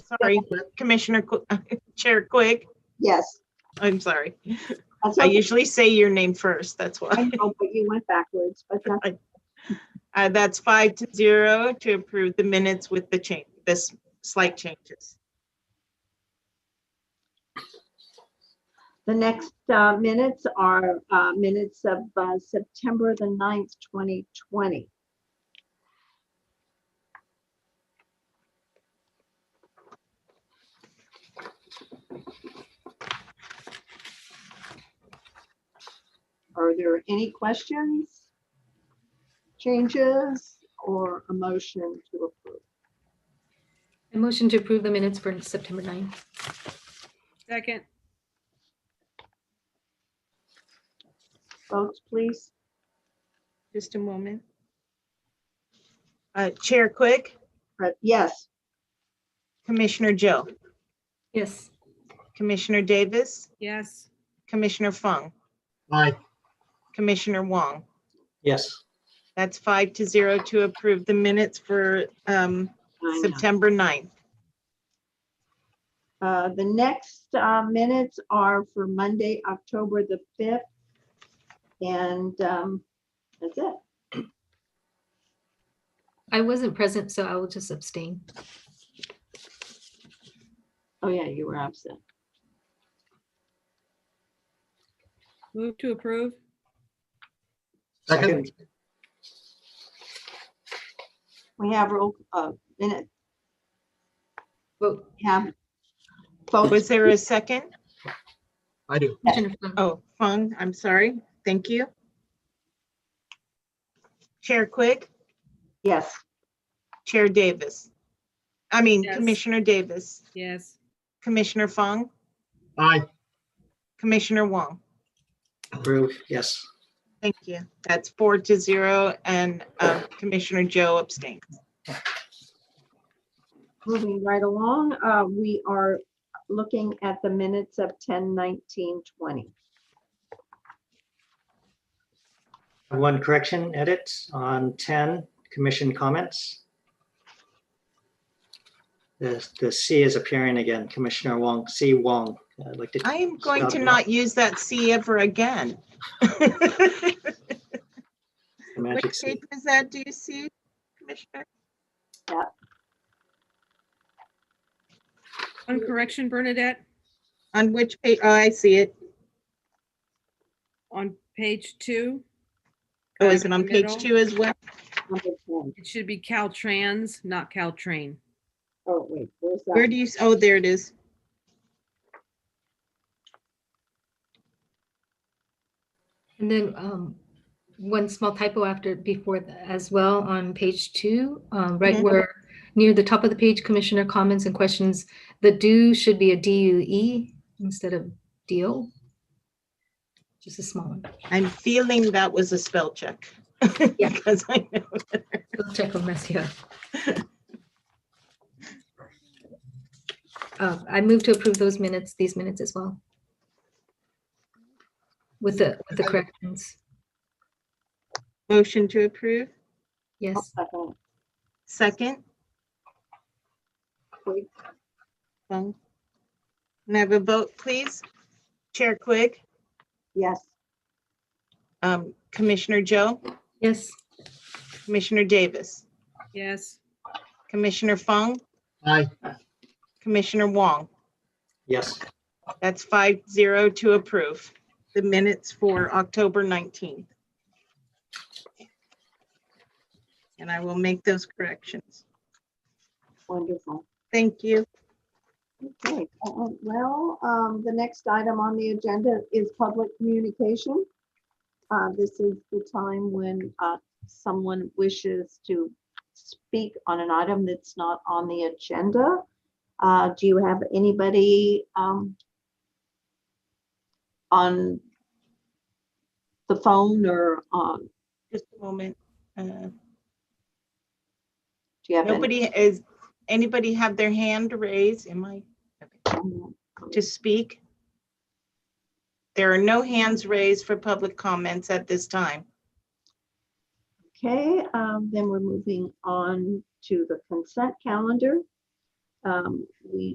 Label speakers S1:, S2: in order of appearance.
S1: sorry, Commissioner, Qu- Chair Quigg,
S2: Yes,
S1: I'm sorry.
S2: that's
S1: I
S2: okay.
S1: usually say your name first, that's
S2: I
S1: why.
S2: know, but you went backwards, but that's
S1: Uh, That's five to zero to approve the minutes with the change, this slight changes.
S2: The next uh, minutes are uh, minutes of uh, September the 9th, 2020. Are there any questions, changes, or a motion to approve?
S3: I motion to approve the minutes for September 9th.
S4: Second,
S2: Votes, please.
S1: Just a moment. Uh, Chair Quigg,
S2: Fred- Yes,
S1: Commissioner Joe,
S3: Yes,
S1: Commissioner Davis,
S4: yes,
S1: Commissioner Fung,
S5: Aye.
S1: Commissioner Wong.
S5: Yes.
S1: That's five to zero to approve the minutes for um,
S2: I know.
S1: September 9th.
S2: Uh, The next uh, minutes are for Monday, October the 5th. And um, that's it.
S3: I wasn't present, so I will just abstain.
S2: Oh, yeah, you were absent.
S4: move to approve,
S5: Second?
S2: We have roll, uh, minute,
S3: Vote.
S2: we have votes.
S1: Was there a second?
S5: I do.
S3: Commissioner Fung.
S1: Oh, Fung, I'm sorry. Thank you. Chair Quigg,
S2: Yes,
S1: Chair Davis. I mean,
S4: Yes.
S1: Commissioner Davis,
S4: yes,
S1: Commissioner Fung,
S5: Aye.
S1: Commissioner Wong.
S5: Approve, yes.
S1: Thank you. That's four to zero and um, Commissioner Joe abstained.
S2: moving right along, uh, we are looking at the minutes of 10, 19, 20.
S6: One correction edit on 10, commission comments. The, the C is appearing again, Commissioner Wong, C Wong. I'd like to-
S1: I am going to
S6: Stop.
S1: not use that C ever again. Which
S6: magic C.
S1: page was that? Do you see, Commissioner?
S4: on correction, Bernadette,
S1: On which page? Oh, I see it.
S4: on page two.
S1: Oh,
S4: kind
S1: is it
S4: of in
S1: on
S4: the
S1: page
S4: middle.
S1: two as well?
S2: Number 10.
S4: It should be Caltrans, not Caltrain.
S2: Oh, wait, where's
S1: Where
S2: that?
S1: do you, s- oh, there it is.
S3: And then um, one small typo after, before th- as well on page two, um, right
S1: Mhm.
S3: where near the top of the page, Commissioner comments and questions. The do should be a DUE instead of deal. Just a small one.
S1: I'm feeling that was a spell check.
S3: Yeah.
S1: Because I know.
S3: We'll check on mess here. Uh, I move to approve those minutes, these minutes as well. With the, with the corrections,
S1: Motion to approve.
S2: I'll
S3: yes.
S2: Oh, second.
S1: Second.
S2: Quigg.
S1: Fung. Can I have a vote, please? Chair Quigg,
S2: Yes,
S1: um, Commissioner Joe,
S3: Yes,
S1: Commissioner Davis,
S4: Yes,
S1: Commissioner Fung,
S5: Aye.
S1: Commissioner Wong.
S6: Yes,
S1: That's five zero to approve the minutes for October 19th. And I will make those corrections.
S2: wonderful.
S1: Thank you.
S2: Okay, that went Uh, well, um, the next item on the agenda is public communication. Uh, this is the time when, uh, someone wishes to speak on an item that's not on the agenda. Uh, do you have anybody, um, on the phone or um, on,
S1: Just a moment. Uh,
S2: do you have? any-
S1: Nobody is, anybody have their hand raised? Am I to speak? There are no hands raised for public comments at this time.
S2: Okay, um, then we're moving on to the consent calendar. um, we